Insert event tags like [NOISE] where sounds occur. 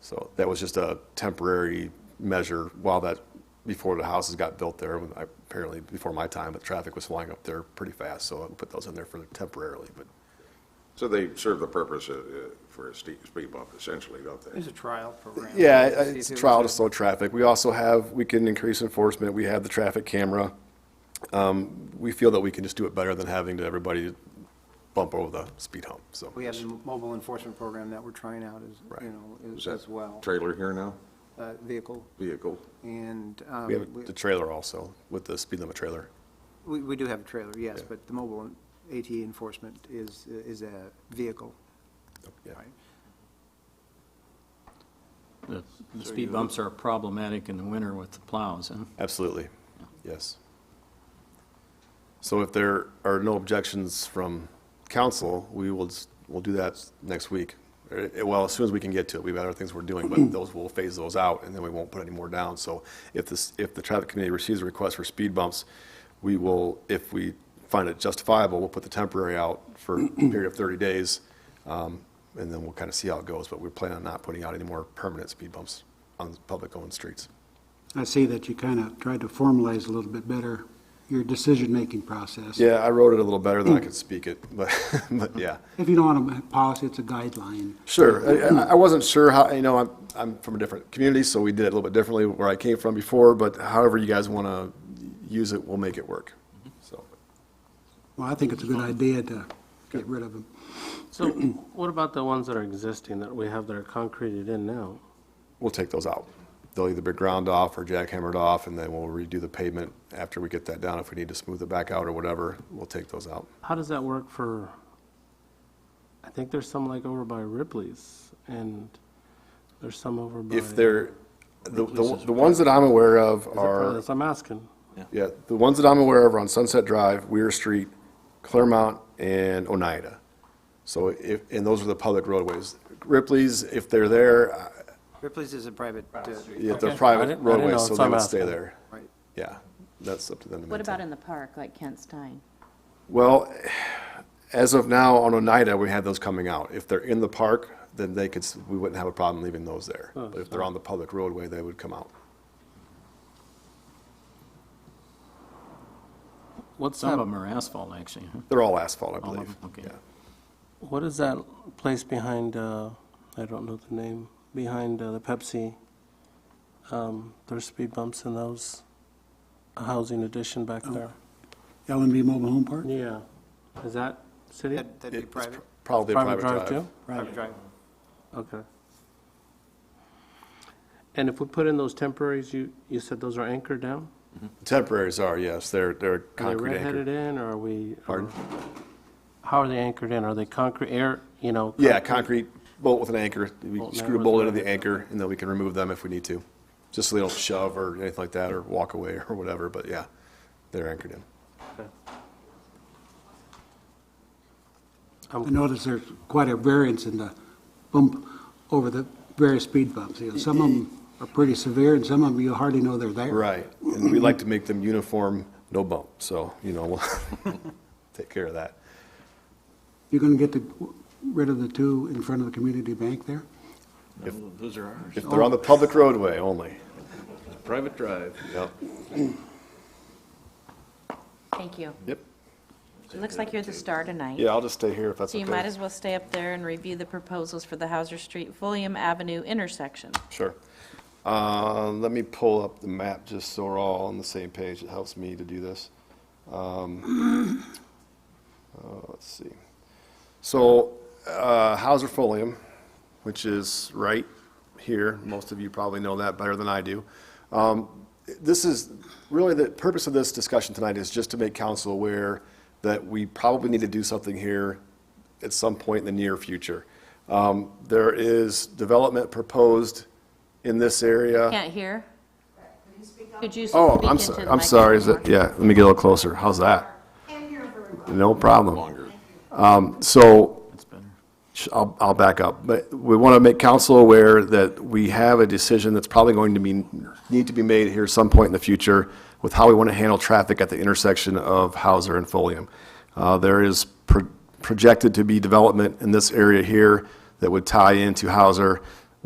So that was just a temporary measure while that, before the houses got built there, when I- apparently before my time, but traffic was flying up there pretty fast, so I put those in there for temporarily, but So they serve the purpose uh, uh, for a ste- speed bump essentially, don't they? There's a trial program. Yeah, See if it's it a was trial a- to slow traffic. We also have, we can increase enforcement, we have the traffic camera. Um, We feel that we can just do it better than having to everybody bump over the speed hump, so. We have the mobile enforcement program that we're trying out as, you Right. know, Is as- that as well, Trailer here now, uh, vehicle. vehicle. And um, We have we- the trailer also, with the speed limit trailer. we, we do have a trailer, yes, Yeah. but the mobile en- ATA enforcement is, is a vehicle. Yeah. right? The the speed bumps are problematic in the winter with the plows, and Absolutely, yes. So if there are no objections from council, we will, s- we'll do that next week. Eh, eh, Well, as soon as we can get to it, we've got other things we're doing, but those, we'll phase those out, and then we won't put any more down. So if this, if the traffic committee receives a request for speed bumps, we will, if we find it justifiable, we'll put the temporary out for a period of 30 days, um, and then we'll kind of see how it goes, but we plan on not putting out any more permanent speed bumps on public-owned streets. I see that you kind of tried to formalize a little bit better your decision-making process. Yeah, I wrote it a little better than I could speak it, but, [LAUGHS] but yeah. If you don't want a policy, it's a guideline. Sure, I- I, I wasn't sure how, you know, I'm, I'm from a different community, so we did it a little bit differently where I came from before, but however you guys want to use it, we'll make it work, so. Well, I think it's a good idea to get rid of them. So what about the ones that are existing that we have that are concreted in now? We'll take those out. They'll either be ground off or jackhammered off, and then we'll redo the pavement after we get that down. If we need to smooth it back out or whatever, we'll take those out. How does that work for, I think there's some like over by Ripley's and there's some over by. If they're, the, the the ones that I'm aware of Is it are. That's what I'm asking. Yeah, the ones that I'm aware of are on Sunset Drive, Weir Street, Claremont, and Oneida. So if, and those are the public roadways. Ripley's, if they're there, uh, Ripley's is a private, uh, if they're Okay. I private didn't- I didn't know, roadways, so that's they what would I'm stay asking. there. right, Yeah, that's up to them to What about maintain. in the park, like Kent Stein? Well, as of now, on Oneida, we have those coming out. If they're in the park, then they could, s- we wouldn't have a problem leaving those there. Oh, But if they're on the public roadway, they would come out. What's some of that, them are asphalt, actually. huh? They're all asphalt, I All of believe. them, okay. Yeah. what is that place behind, uh, I don't know the name, behind uh, the Pepsi? Um, There's speed bumps in those, a housing addition back Oh. there. L and B Mobile Home Park? Yeah, is that city? That- that'd be It's private, Probably a Private private drive too? drive. private drive. Okay. And if we put in those temporaries, you, you said those are anchored down? Temporaries are, yes, they're, they're Are they concrete anchored. redheaded in, or are we? or- Pardon? How are they anchored in? Are they concrete, air, you know? Yeah, concrete bolt with an anchor. We Bolt screw a down bolt with into the an anchor, and then we can remove them if we need to, just so they don't shove or anything like that, or walk away or whatever, but yeah, they're anchored in. I notice there's quite a variance in the bump over the various speed bumps. You know, Some of them are pretty severe, and some of them you hardly know they're there. Right, and we like to make them uniform, no bump, so, you know, we'll [LAUGHS] take care of that. You're going to get the- rid of the two in front of the community bank there? Those are ours. If they're on the public roadway only, Private drive. yep. Thank you. Yep. It looks like you're the star tonight. Yeah, I'll just stay here if that's So okay. you might as well stay up there and review the proposals for the Hauser Street, William Avenue intersection. Sure. Uh, Let me pull up the map just so we're all on the same page. It helps me to do this. Um, uh, Let's see. So uh, Hauser Folium, which is right here, most of you probably know that better than I do. Um, This is, really, the purpose of this discussion tonight is just to make council aware that we probably need to do something here at some point in the near future. Um, There is development proposed in this area. Can't hear? Could you speak Uh, Oh, into I'm the sorry, I'm sorry, is it, microphone? yeah, let me get a little closer, how's that? No problem. Um, so, That's better. sh- I'll, I'll back up, but we want to make council aware that we have a decision that's probably going to be, need to be made here some point in the future with how we want to handle traffic at the intersection of Hauser and Folium. Uh, there is pro- projected to be development in this area here that would tie into Hauser.